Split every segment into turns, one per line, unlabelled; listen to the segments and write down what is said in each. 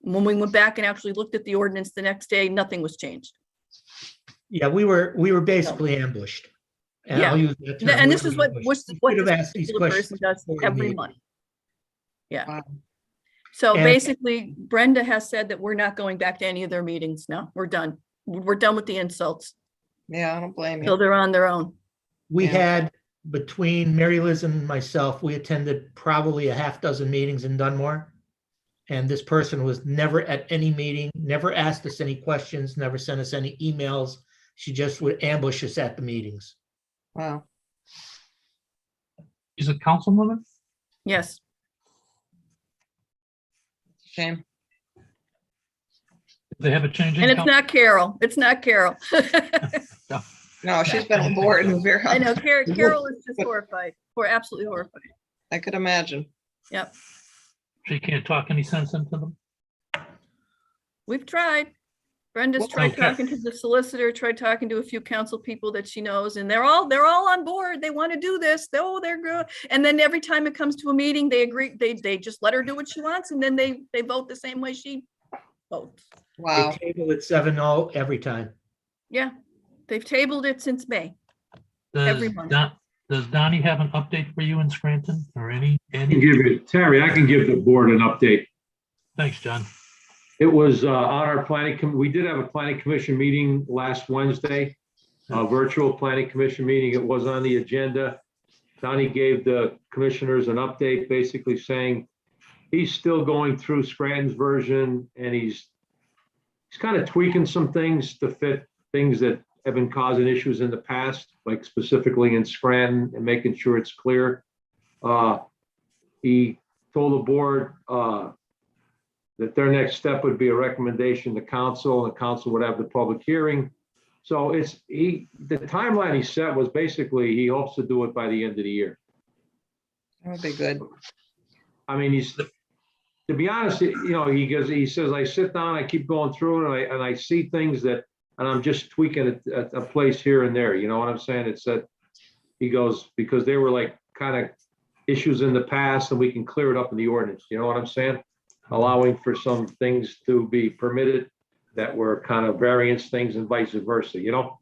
When we went back and actually looked at the ordinance the next day, nothing was changed.
Yeah, we were, we were basically ambushed. And I'll use that term,
And
we
this
were
is what,
ambushed.
what's,
We
what
Should have
this
asked these
particular person
questions.
does
before the
every
meeting.
month. Yeah.
Wow.
So
And-
basically Brenda has said that we're not going back to any of their meetings now. We're done. We're done with the insults.
Yeah, I don't blame
So
you.
they're on their own.
We
Yeah.
had, between Mary Liz and myself, we attended probably a half dozen meetings in Dunmore. And this person was never at any meeting, never asked us any questions, never sent us any emails. She just would ambush us at the meetings.
Wow.
Is it councilwoman?
Yes.
Shame.
Did They have a change in.
And it's
council?
not Carol. It's not Carol.
No, she's been on board and Vera.
I know Carol, Carol is just horrified. We're absolutely horrified.
I could imagine.
She can't talk any sense into them.
We've tried. Brenda's
Well,
tried
okay.
talking to the solicitor, tried talking to a few council people that she knows, and they're all, they're all on board. They want to do this. They- Oh, they're good. And then every time it comes to a meeting, they agree, they, they just let her do what she wants, and then they, they vote the same way she votes.
They
Wow.
table at seven oh every time.
Yeah, they've tabled it since May.
Does
Everyone.
Don, does Donnie have an update for you in Scranton or any,
can
any?
give you, Terry, I can give the board an update.
Thanks, John.
It was uh, on our planning, com- we did have a planning commission meeting last Wednesday, a virtual planning commission meeting. It was on the agenda. Donnie gave the commissioners an update, basically saying he's still going through Scranton's version and he's he's kind of tweaking some things to fit things that have been causing issues in the past, like specifically in Scranton and making sure it's clear. Uh, He told the board, uh, that their next step would be a recommendation to council, and council would have the public hearing. So it's, he, the timeline he set was basically, he hopes to do it by the end of the year.
That would be good.
I mean, he's, to be honest, you know, he goes, he says, I sit down, I keep going through it, and I, and I see things that, and I'm just tweaking a, a- a place here and there, you know what I'm saying? It's that, he goes, because they were like kind of issues in the past, and we can clear it up in the ordinance, you know what I'm saying? Allowing for some things to be permitted that were kind of variance things and vice versa, you know?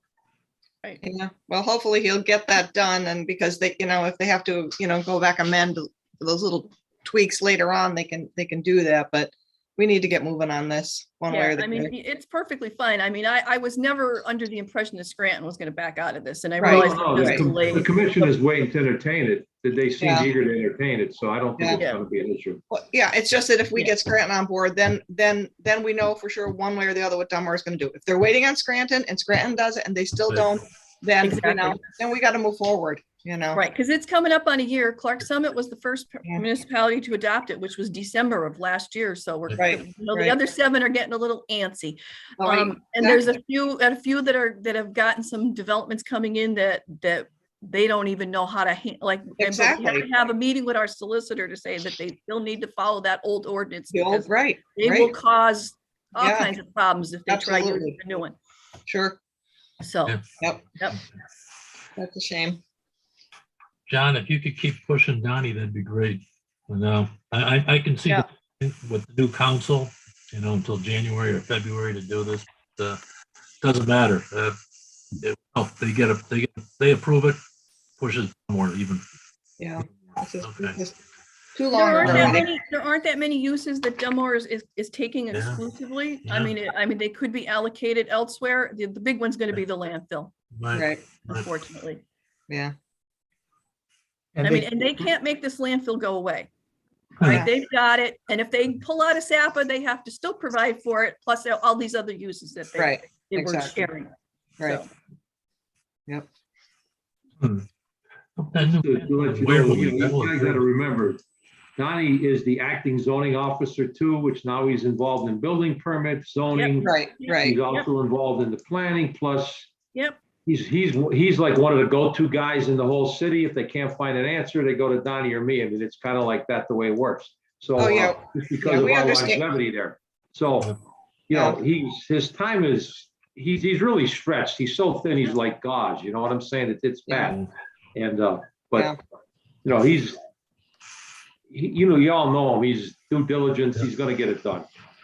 Yeah. Well, hopefully he'll get that done and because they, you know, if they have to, you know, go back amend those little tweaks later on, they can, they can do that, but we need to get moving on this one way
Yeah,
or the
I mean,
other.
i- it's perfectly fine. I mean, I, I was never under the impression that Scranton was gonna back out of this, and I
Right.
realized.
No,
it was
the com-
delayed.
The commission is waiting to entertain it, that they seem
Yeah.
eager to entertain it, so I don't think
Yeah.
it's gonna be an issue.
Well, Yeah, it's just that if we
Yeah.
get Scranton on board, then, then, then we know for sure one way or the other what Dunmore is gonna do. If they're waiting on Scranton and Scranton does it and they still
Right.
don't, then, you
Exactly.
know, then we gotta move forward, you know?
Right, because it's coming up on a year. Clark Summit was the first
Yeah.
municipality to adopt it, which was December of last year, so we're,
Right,
you know, the
right.
other seven are getting a little antsy.
All right.
Um, and there's a few, and a few that are, that have gotten some developments coming in that, that they don't even know how to, han- like, and but we had to
Exactly.
have a meeting with our solicitor to say that they still need to follow that old ordinance.
The old,
because
right,
They will
right.
cause all
Yeah.
kinds of problems if they try to
Absolutely.
do the new one,
Sure.
so.
Yeah.
That's a shame.
John, if you could keep pushing Donnie, that'd be great. And, uh, I, I, I can see
Yeah.
with the new council, you know, until January or February to do this, uh, doesn't matter. Uh, it- oh, they get it, they, get- they approve it, pushes more even.
Yeah. This is-
Okay.
this is Too
There
long.
aren't that
already.
many, there aren't that many uses that Dunmore is, is, is taking
Yeah.
exclusively. I
Yeah.
mean, it- I mean, they could be allocated elsewhere. The, the big one's gonna be the landfill,
Right,
Right,
Right.
unfortunately.
yeah.
And
I
they-
mean, and they can't make this landfill go away.
Yeah.
Right? They've got it. And if they pull out a SAPA, they have to still provide for it, plus there are all these other uses that they,
Right,
they were
exactly.
sharing.
right.
So,
That new-
Just to to let you
Where
know,
will
you
we
know,
go?
you guys gotta remember, Donnie is the acting zoning officer too, which now he's involved in building permits, zoning.
Right, right.
He's also involved in the planning, plus
Yep,
he's, he's, he's like one of the go-to guys in the whole city. If they can't find an answer, they go to Donnie or me. I mean, it's kind of like that, the way it works. So
Oh,
uh,
yeah.
just
Yeah,
because of
we
our
understand.
longevity there. So, you know, he's, his time is, he's, he's really stretched. He's so thin, he's like gauze, you know what I'm saying? It's, it's
Yeah.
bad. And, uh,
Yeah.
but, you know, he's, he- you know, y'all know him. He's due diligence. He's gonna get it done.